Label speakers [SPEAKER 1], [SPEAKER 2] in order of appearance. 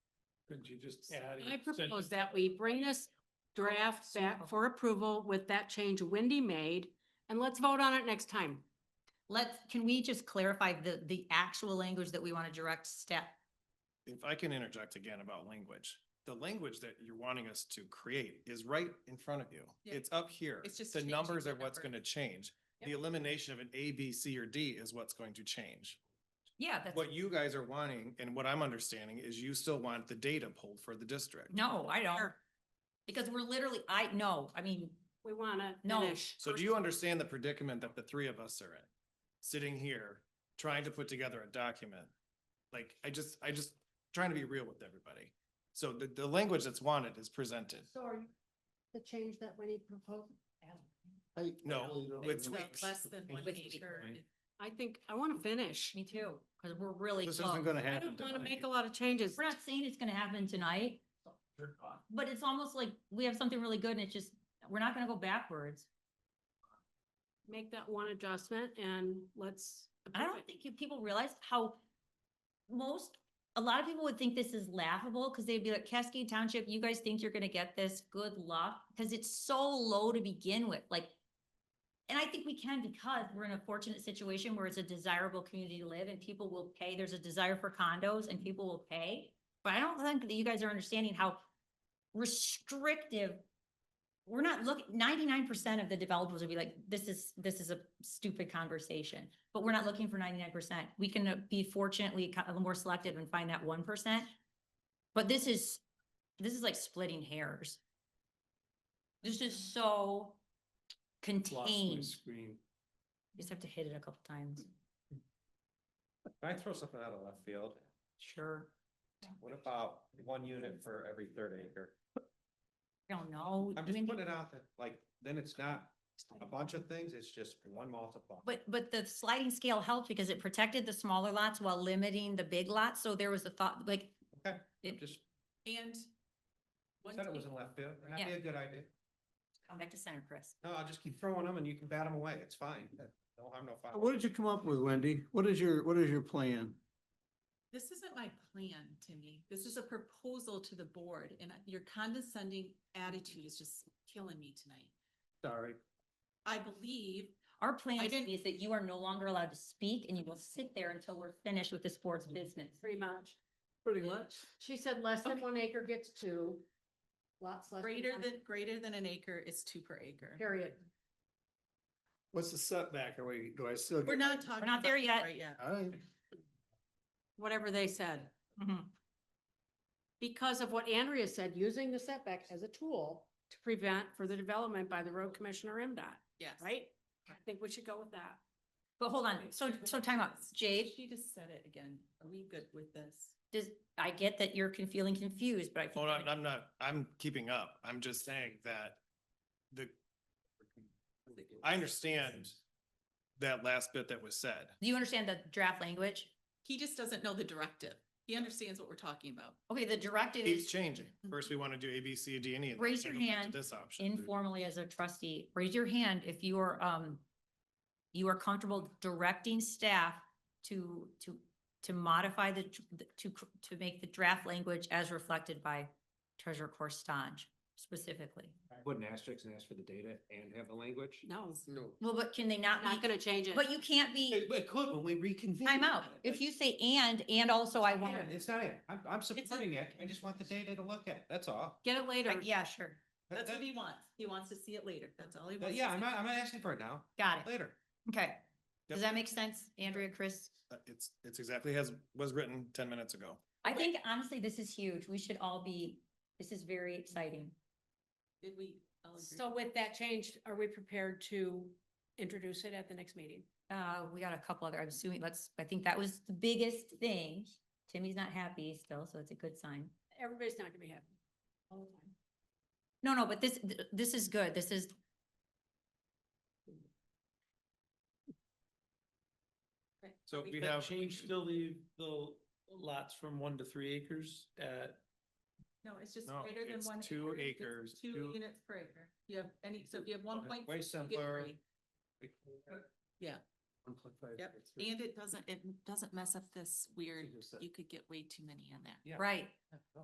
[SPEAKER 1] Couldn't you just
[SPEAKER 2] Yeah.
[SPEAKER 1] add?
[SPEAKER 3] I
[SPEAKER 1] each sentence?
[SPEAKER 3] propose that we bring this draft back for approval with that change Wendy made, and let's vote on it next time.
[SPEAKER 4] Let's, can we just clarify the, the actual language that we want to direct step?
[SPEAKER 2] If I can interject again about language, the language that you're wanting us to create is right in front of you.
[SPEAKER 5] Yeah.
[SPEAKER 2] It's up here.
[SPEAKER 5] It's just
[SPEAKER 2] The
[SPEAKER 5] changing
[SPEAKER 2] numbers
[SPEAKER 5] the
[SPEAKER 2] are what's
[SPEAKER 5] number.
[SPEAKER 2] gonna change.
[SPEAKER 3] Yep.
[SPEAKER 2] The elimination of an A, B, C, or D is what's going to change.
[SPEAKER 4] Yeah, that's,
[SPEAKER 2] What you guys are wanting, and what I'm understanding, is you still want the data pulled for the district.
[SPEAKER 4] no, I don't. Because we're literally, I, no, I mean,
[SPEAKER 3] We wanna
[SPEAKER 4] No.
[SPEAKER 3] finish.
[SPEAKER 2] So do you understand the predicament that the three of us are in? Sitting here, trying to put together a document. Like, I just, I just trying to be real with everybody. So the, the language that's wanted is presented.
[SPEAKER 3] The change that Wendy proposed?
[SPEAKER 2] No, with
[SPEAKER 5] So
[SPEAKER 2] tweaks.
[SPEAKER 5] Less than one
[SPEAKER 4] With
[SPEAKER 5] acre.
[SPEAKER 1] tweaks.
[SPEAKER 3] I think, I wanna finish.
[SPEAKER 4] me too, because we're really
[SPEAKER 2] This
[SPEAKER 4] close.
[SPEAKER 2] isn't gonna
[SPEAKER 3] I
[SPEAKER 2] happen
[SPEAKER 3] don't wanna
[SPEAKER 2] tonight.
[SPEAKER 3] make a lot of changes.
[SPEAKER 4] We're not saying it's gonna happen tonight, but it's almost like we have something really good and it's just, we're not gonna go backwards.
[SPEAKER 3] Make that one adjustment and let's.
[SPEAKER 4] I
[SPEAKER 3] approve
[SPEAKER 4] don't
[SPEAKER 3] it.
[SPEAKER 4] think you- people realize how most, a lot of people would think this is laughable because they'd be like, Cascade Township, you guys think you're gonna get this? Good luck, because it's so low to begin with, like. And I think we can because we're in a fortunate situation where it's a desirable community to live and people will pay. There's a desire for condos and people will pay. But I don't think that you guys are understanding how restrictive. We're not looking, ninety-nine percent of the developers would be like, this is, this is a stupid conversation. But we're not looking for ninety-nine percent. We can uh, be fortunately ki- a little more selective and find that one percent. But this is, this is like splitting hairs. This is so
[SPEAKER 1] Lost my
[SPEAKER 4] contained.
[SPEAKER 1] screen.
[SPEAKER 4] You Just have to hit it a couple times.
[SPEAKER 6] Can I throw something out of left field?
[SPEAKER 4] Sure.
[SPEAKER 6] What about one unit for every third acre?
[SPEAKER 4] I don't know.
[SPEAKER 6] I'm
[SPEAKER 4] I mean,
[SPEAKER 6] just putting it out that, like, then it's not a bunch of things, it's just one multiplier.
[SPEAKER 4] But, but the sliding scale helped because it protected the smaller lots while limiting the big lots. So there was a thought, like,
[SPEAKER 6] Okay,
[SPEAKER 4] it-
[SPEAKER 6] I'm just,
[SPEAKER 5] And. one
[SPEAKER 6] said it was
[SPEAKER 5] thing-
[SPEAKER 6] in left field, and that'd be a good idea.
[SPEAKER 4] come back to center, Chris.
[SPEAKER 6] No, I'll just keep throwing them and you can bat them away, it's fine. No harm, no foul.
[SPEAKER 7] What did you come up with, Wendy? What is your, what is your plan?
[SPEAKER 5] This isn't my plan, Timmy. This is a proposal to the board and your condescending attitude is just killing me tonight.
[SPEAKER 1] Sorry.
[SPEAKER 5] I believe
[SPEAKER 4] Our plan
[SPEAKER 5] I
[SPEAKER 4] is
[SPEAKER 5] didn't-
[SPEAKER 4] is that you are no longer allowed to speak and you will sit there until we're finished with this board's business.
[SPEAKER 3] Pretty much.
[SPEAKER 7] Pretty much.
[SPEAKER 3] She said less than
[SPEAKER 5] Okay.
[SPEAKER 3] one acre gets two. Lots less.
[SPEAKER 5] greater
[SPEAKER 3] one,
[SPEAKER 5] than, greater than an acre is two per acre.
[SPEAKER 3] Period.
[SPEAKER 7] What's the setback? Are we, do I still?
[SPEAKER 5] We're
[SPEAKER 7] get-
[SPEAKER 5] not talking.
[SPEAKER 4] not
[SPEAKER 5] about
[SPEAKER 4] there
[SPEAKER 5] it
[SPEAKER 4] yet.
[SPEAKER 5] Right yet.
[SPEAKER 7] All right.
[SPEAKER 3] Whatever they said.
[SPEAKER 4] Mhm.
[SPEAKER 3] because of what Andrea said, using the setback as a tool to prevent further development by the road commissioner MDOT,
[SPEAKER 5] Yes.
[SPEAKER 3] right? I think we should go with that.
[SPEAKER 4] But hold on, so, so time out. Jade,
[SPEAKER 5] She just said it again. Are we good with this?
[SPEAKER 4] does, I get that you're con- feeling confused, but I. think
[SPEAKER 2] Hold on,
[SPEAKER 4] that-
[SPEAKER 2] I'm not, I'm keeping up. I'm just saying that the, I understand that last bit that was said.
[SPEAKER 4] Do you understand the draft language?
[SPEAKER 5] He just doesn't know the directive. He understands what we're talking about.
[SPEAKER 4] Okay, the directive
[SPEAKER 2] Keeps
[SPEAKER 4] is
[SPEAKER 2] changing. First, we want to do A, B, C, D, and E. and then
[SPEAKER 4] Raise your
[SPEAKER 2] we'll get to
[SPEAKER 4] hand
[SPEAKER 2] This option.
[SPEAKER 4] informally as a trustee, raise your hand if you are, um, you are comfortable directing staff to, to, to modify the, tr- the- to, cr- to make the draft language as reflected by Treasurer Corstange specifically.
[SPEAKER 6] Put an asterisk and ask for the data and have the language?
[SPEAKER 3] No,
[SPEAKER 4] Well, but can they
[SPEAKER 3] I'm not
[SPEAKER 4] not be,
[SPEAKER 3] gonna change it.
[SPEAKER 4] but you can't be,
[SPEAKER 6] It, it could when we reconvene.
[SPEAKER 4] time out. If you say and, and also I want,
[SPEAKER 6] Yeah, It's not it, I'm, I'm supporting it, I just want the data to look at, that's all.
[SPEAKER 3] Get it later.
[SPEAKER 4] yeah, sure,
[SPEAKER 6] That-
[SPEAKER 5] That's what
[SPEAKER 6] that-
[SPEAKER 5] he wants. He wants to see it later. That's all he
[SPEAKER 6] that-
[SPEAKER 5] wants.
[SPEAKER 6] Yeah,
[SPEAKER 5] to
[SPEAKER 6] I'm
[SPEAKER 5] see.
[SPEAKER 6] not, I'm not asking for it now,
[SPEAKER 4] got it,
[SPEAKER 6] later.
[SPEAKER 4] okay.
[SPEAKER 2] Yep.
[SPEAKER 4] Does that make sense, Andrea, Chris?
[SPEAKER 2] Uh, It's, it's exactly as was written ten minutes ago.
[SPEAKER 4] I think honestly, this is huge. We should all be, this is very exciting.
[SPEAKER 5] Did we? all agree?
[SPEAKER 3] So with that change, are we prepared to introduce it at the next meeting?
[SPEAKER 4] Uh, we got a couple other, I'm assuming, let's, I think that was the biggest thing. Timmy's not happy still, so it's a good sign.
[SPEAKER 3] Everybody's not gonna be happy. all the time.
[SPEAKER 4] No, no, but this, th- this is good. This is.
[SPEAKER 2] So we
[SPEAKER 5] But
[SPEAKER 2] have.
[SPEAKER 1] Change still leave the lots from one to three acres at,
[SPEAKER 5] No, it's just
[SPEAKER 2] No,
[SPEAKER 5] greater than
[SPEAKER 2] it's
[SPEAKER 5] one.
[SPEAKER 2] two
[SPEAKER 5] acre, it's
[SPEAKER 2] acres,
[SPEAKER 5] Two
[SPEAKER 2] two- Oh,
[SPEAKER 5] units per acre. You have any, so if you have one point.
[SPEAKER 6] Way
[SPEAKER 5] six, you get
[SPEAKER 6] simpler.
[SPEAKER 5] three. Yeah. Yep. And it doesn't, it doesn't mess up this weird, you could get way too many on that.
[SPEAKER 6] Yeah.
[SPEAKER 4] Right.